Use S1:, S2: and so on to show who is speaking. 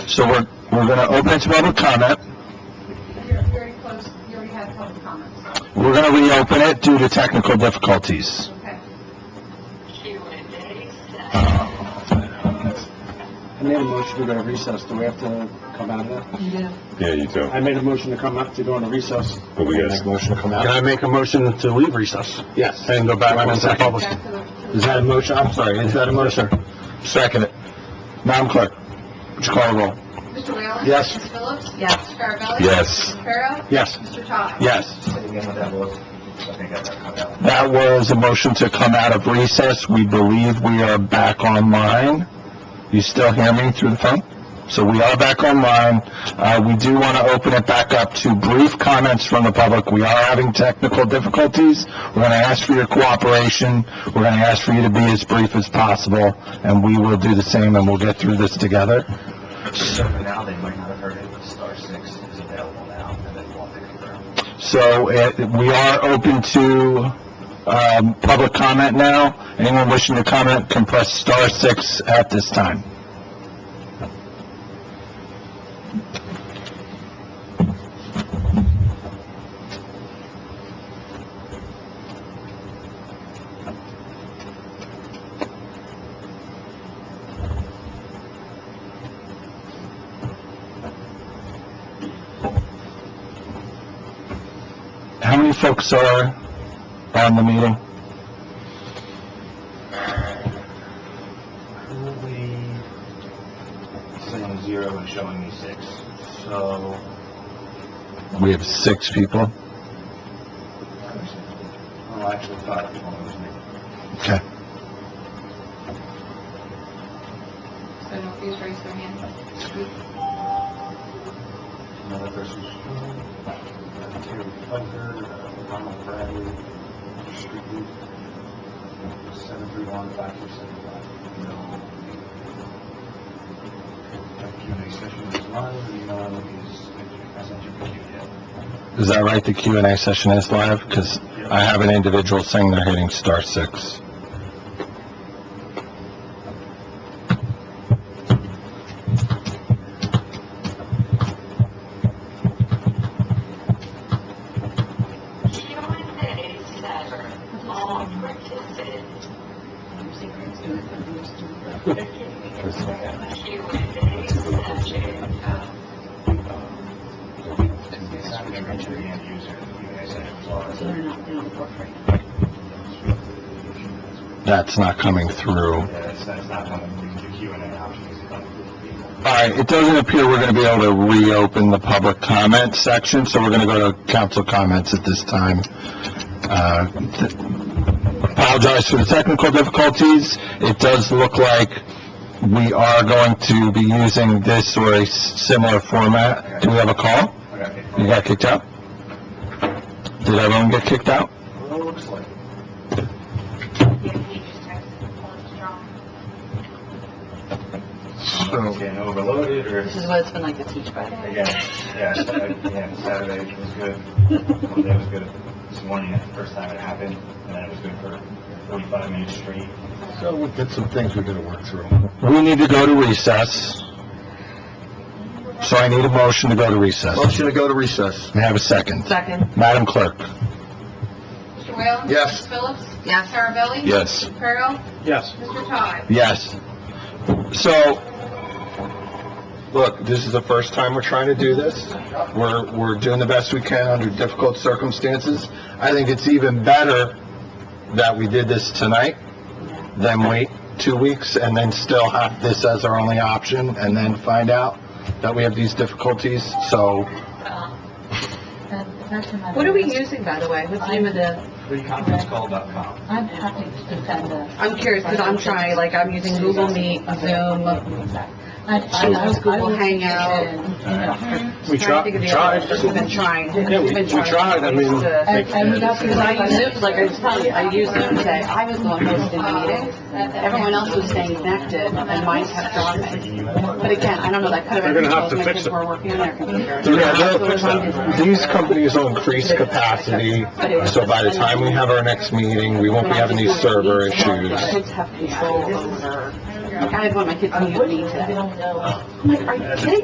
S1: So we're, we're gonna open it to public comment,
S2: You're very close, you already had public comments.
S1: we're gonna reopen it due to technical difficulties.
S2: Okay.
S3: I made a motion to go to recess. Do we have to come out of that?
S4: Yeah, you do.
S3: I made a motion to come up, to go into recess.
S4: But we got,
S3: motion to come out. Can I make a motion to leave recess? Yes. And go back into the public?
S2: Back to the- to the-
S3: Is that a motion? I'm sorry, is that a motion?
S1: Second it. Madam Clerk, would you call the roll?
S2: Mr. Whalen?
S3: Yes.
S2: Ms. Phillips? Yes. Mr. Carabelli?
S4: Yes.
S2: Mr. Reparo?
S3: Yes.
S2: Mr. Todd?
S1: Yes. That was a motion to come out of recess. We believe we are back online. You still hear me through the phone? So we are back online. Uh, we do want to open it back up to brief comments from the public. We are having technical difficulties. We're going to ask for your cooperation. We're going to ask for you to be as brief as possible, and we will do the same, and we'll get through this together.
S5: So for now, they might not have heard it, but Star Six is available now, and then we'll have to confirm.
S1: So uh, we are open to um, public comment now. Anyone wishing to comment can press star six at this time. How many folks are on the meeting?
S5: Currently, saying zero and showing me six, so.
S1: We have six people.
S5: Oh, actually, five, one was me.
S1: Okay.
S2: So no, please raise your hand.
S5: Another person's. Terry Plucker, Ronald Bradley, Street, seven three one five four seven five. No. Q and A session is live, the email is, I sent you the Q yet.
S1: Is that right? The Q and A session is live? Because I have an individual saying they're hitting star six.
S6: Q&A session, all participants. Q&A session,
S5: It's not going to the end user, the Q and A session is live.
S1: That's not coming through.
S5: Yeah, it's, it's not coming, the Q and A option is coming to the people.
S1: All right, it doesn't appear we're going to be able to reopen the public comment section, so we're going to go to council comments at this time. Uh, th- Apologize for the technical difficulties. It does look like we are going to be using this or a s- similar format. Do we have a call?
S5: I got it.
S1: You got kicked out? Did everyone get kicked out?
S5: Well, it looks like. it. It's getting overloaded, or,
S7: This is what it's been like to teach by
S5: again, yeah, Saturday, yeah, Saturday was good. Monday was good. This morning, that's the first time it happened, and then it was good for forty-five minutes straight.
S4: so we've got some things we gotta work through.
S1: We need to go to recess. So I need a motion to go to recess.
S4: Motion to go to recess.
S1: May I have a second?
S7: Second.
S1: Madam Clerk?
S2: Mr. Whalen?
S4: Yes.
S2: Ms. Phillips?
S7: Yes.
S2: Carabelli?
S1: Yes.
S2: Mr. Reparo?
S3: Yes.
S2: Mr. Todd?
S1: Yes. So,
S4: Look, this is the first time we're trying to do this.
S1: we're, we're doing the best we can under difficult circumstances. I think it's even better that we did this tonight than wait two weeks and then still have this as our only option and then find out that we have these difficulties. So,
S7: What are we using, by the way? What's the name of the?
S5: Freeconferencecall.com.
S8: I'm happy to defend us.
S7: I'm curious, because I'm trying, like, I'm using Google Meet, Zoom.
S8: I, I was
S7: Google Hangout.
S3: We
S7: Trying to
S3: tried,
S7: think of
S3: we
S7: the
S3: tried.
S7: other ones. We've been trying.
S3: Yeah, we- we tried, I mean-
S8: And, and we got to
S7: Because I use Zoom, like I was telling you, I use Zoom today. I was the one hosting the meeting. Everyone else was staying connected, and mine kept on me. But again, I don't know, that could have
S3: They're
S7: been
S3: gonna have
S7: because
S3: to
S7: my
S3: fix
S7: kids
S3: it.
S7: were working on their computer.
S1: yeah, they'll fix that. these companies will increase capacity. So by the time we have our next meeting, we won't be having these server issues.
S7: My Kids have control over, like, I had one of my kids mute me today.
S8: don't know.
S7: I'm like, are you kidding